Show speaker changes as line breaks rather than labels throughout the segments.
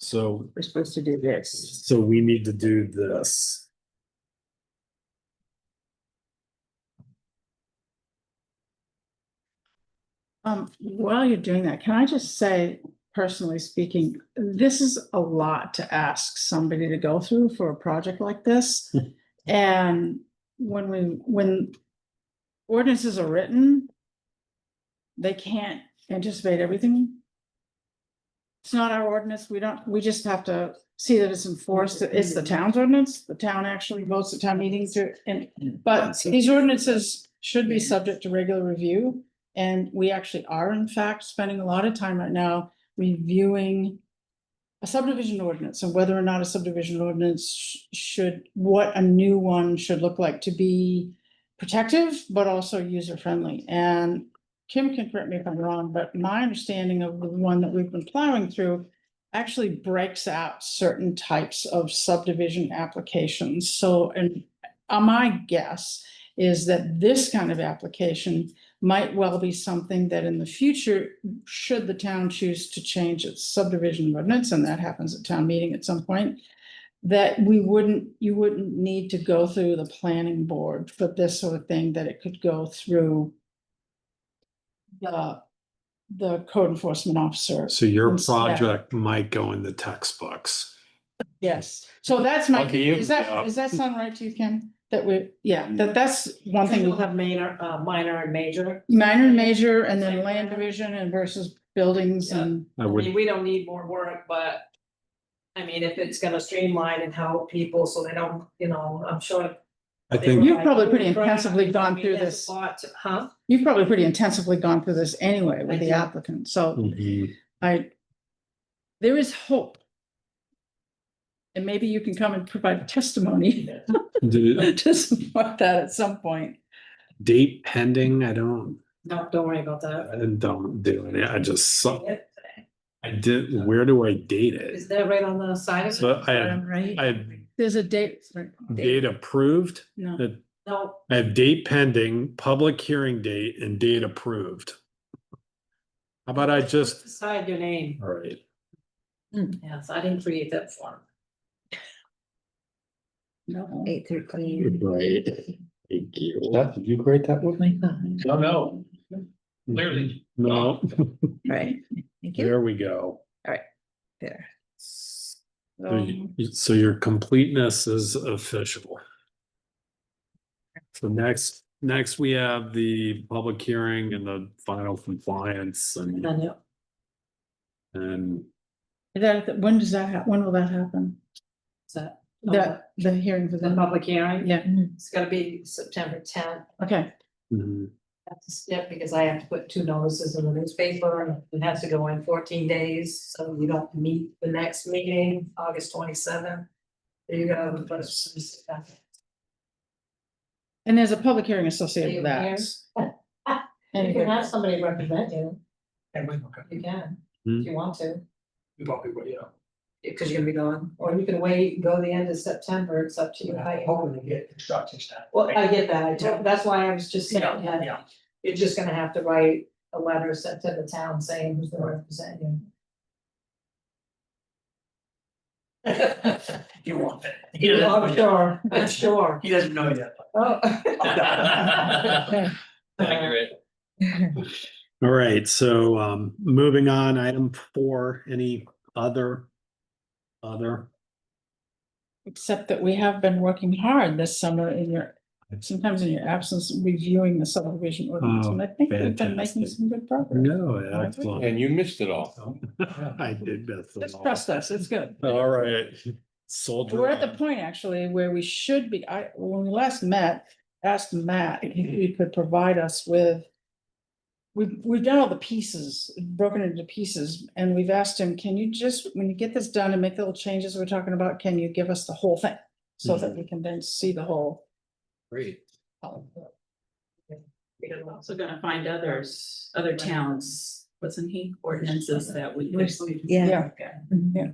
So,
We're supposed to do this.
so we need to do this.
Um, while you're doing that, can I just say, personally speaking, this is a lot to ask somebody to go through for a project like this. And when we, when ordinances are written, they can't anticipate everything. It's not our ordinance. We don't, we just have to see that it's enforced. It's the town's ordinance. The town actually votes at town meetings to, and, but these ordinances should be subject to regular review. And we actually are in fact spending a lot of time right now reviewing a subdivision ordinance and whether or not a subdivision ordinance sh- should, what a new one should look like to be protective, but also user friendly. And Kim can correct me if I'm wrong, but my understanding of the one that we've been plowing through actually breaks out certain types of subdivision applications. So, and uh, my guess is that this kind of application might well be something that in the future, should the town choose to change its subdivision ordinance, and that happens at town meeting at some point, that we wouldn't, you wouldn't need to go through the planning board for this sort of thing, that it could go through the, the code enforcement officer.
So your
Yes, yeah.
project might go in the textbooks.
Yes, so that's my,
Lucky you.
is that,
Yeah. Mm.
is that sound right to you, Kim? That we, yeah, that, that's one thing.
You'll have minor, uh, minor and major.
Minor and major, and then land division and versus buildings and.
I
I
would,
mean, we don't need more work, but. I mean, if it's gonna streamline and help people so they don't, you know, I'm sure.
I
they
think,
were
You've
like,
probably pretty
"Oh, crap."
intensively gone
I mean,
through
there's a
this.
lot to- Huh?
You've probably pretty intensively gone through this anyway
I
with the
did.
applicant, so
Mhm.
I, there is hope. And maybe you can come and provide testimony
Did it-
to support that at some point.
date pending, I don't,
No, don't worry about that.
I don't do it. I just, saw-
It-
I did, where do I date
Is
it?
that right on the side of it?
So I have, I
Right?
have
There's a date, right?
date approved,
No,
No,
I have date pending, public hearing date and date approved. How about I just,
decide your name.
all right,
Yes, I didn't create that form.
no.
Eight thirteen.
right, thank you.
Beth, did you create that with me?
No, no,
Oh.
clearly.
Hmm. No,
Right, thank you,
there we go.
there,
So you- you- So your completeness is official. So next, next we have the public hearing and the final compliance
And
and,
then it-
and
That, when does that, hap- when will that happen?
it's a-
The, the hearing for
The
the,
public hearing.
yeah,
It's gonna be September tenth.
okay,
mhm,
have to skip because I have to put two notices in the newspaper and it has to go in fourteen days, so you don't meet the next meeting, August twenty seventh. There you go. the first-
and there's a public hearing associated with
Are you
that.
You
Anyway.
can have somebody represent you,
And we, okay,
you can,
Hmm.
if you want to,
we probably, would, yeah.
because you're gonna be gone, or you can wait, go the end of September, it's up to you. how you want.
Hoping to get construction started.
Well, I get that, I told- that's why I was just saying
Yeah,
that,
yeah.
you're just gonna have to write a letter sent to the town saying who's gonna represent you.
You want it. He doesn't know
I'm
yet.
sure, I'm sure.
He doesn't know yet.
Oh.
Accurate.
all right, so um, moving on, item four, any other? Other,
Except that we have been working hard this summer in your, sometimes in your absence, reviewing the subdivision ordinance,
Oh,
and I think we've been making
fantastic.
some good progress.
no, excellent.
And you missed it all.
I did that.
Just trust us, it's good.
All right, soldier.
We're at the
on.
point actually where we should be, I, when we last met, asked Matt if he could provide us with. We've, we've done all the pieces, broken into pieces, and we've asked him, can you just, when you get this done and make the little changes we're talking about, can you give us the whole thing? So that we can then see the whole. um,
Great.
Because
Also gonna find others, other towns, wasn't he, ordinances that we. could-
yeah.
Yeah.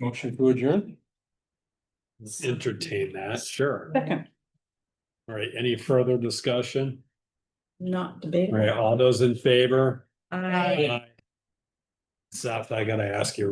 Motion to adjourn?
Entertain that, sure.
Second,
All right, any further discussion?
not
All
debatable.
right, all those in favor?
I.
Seth, I gotta ask you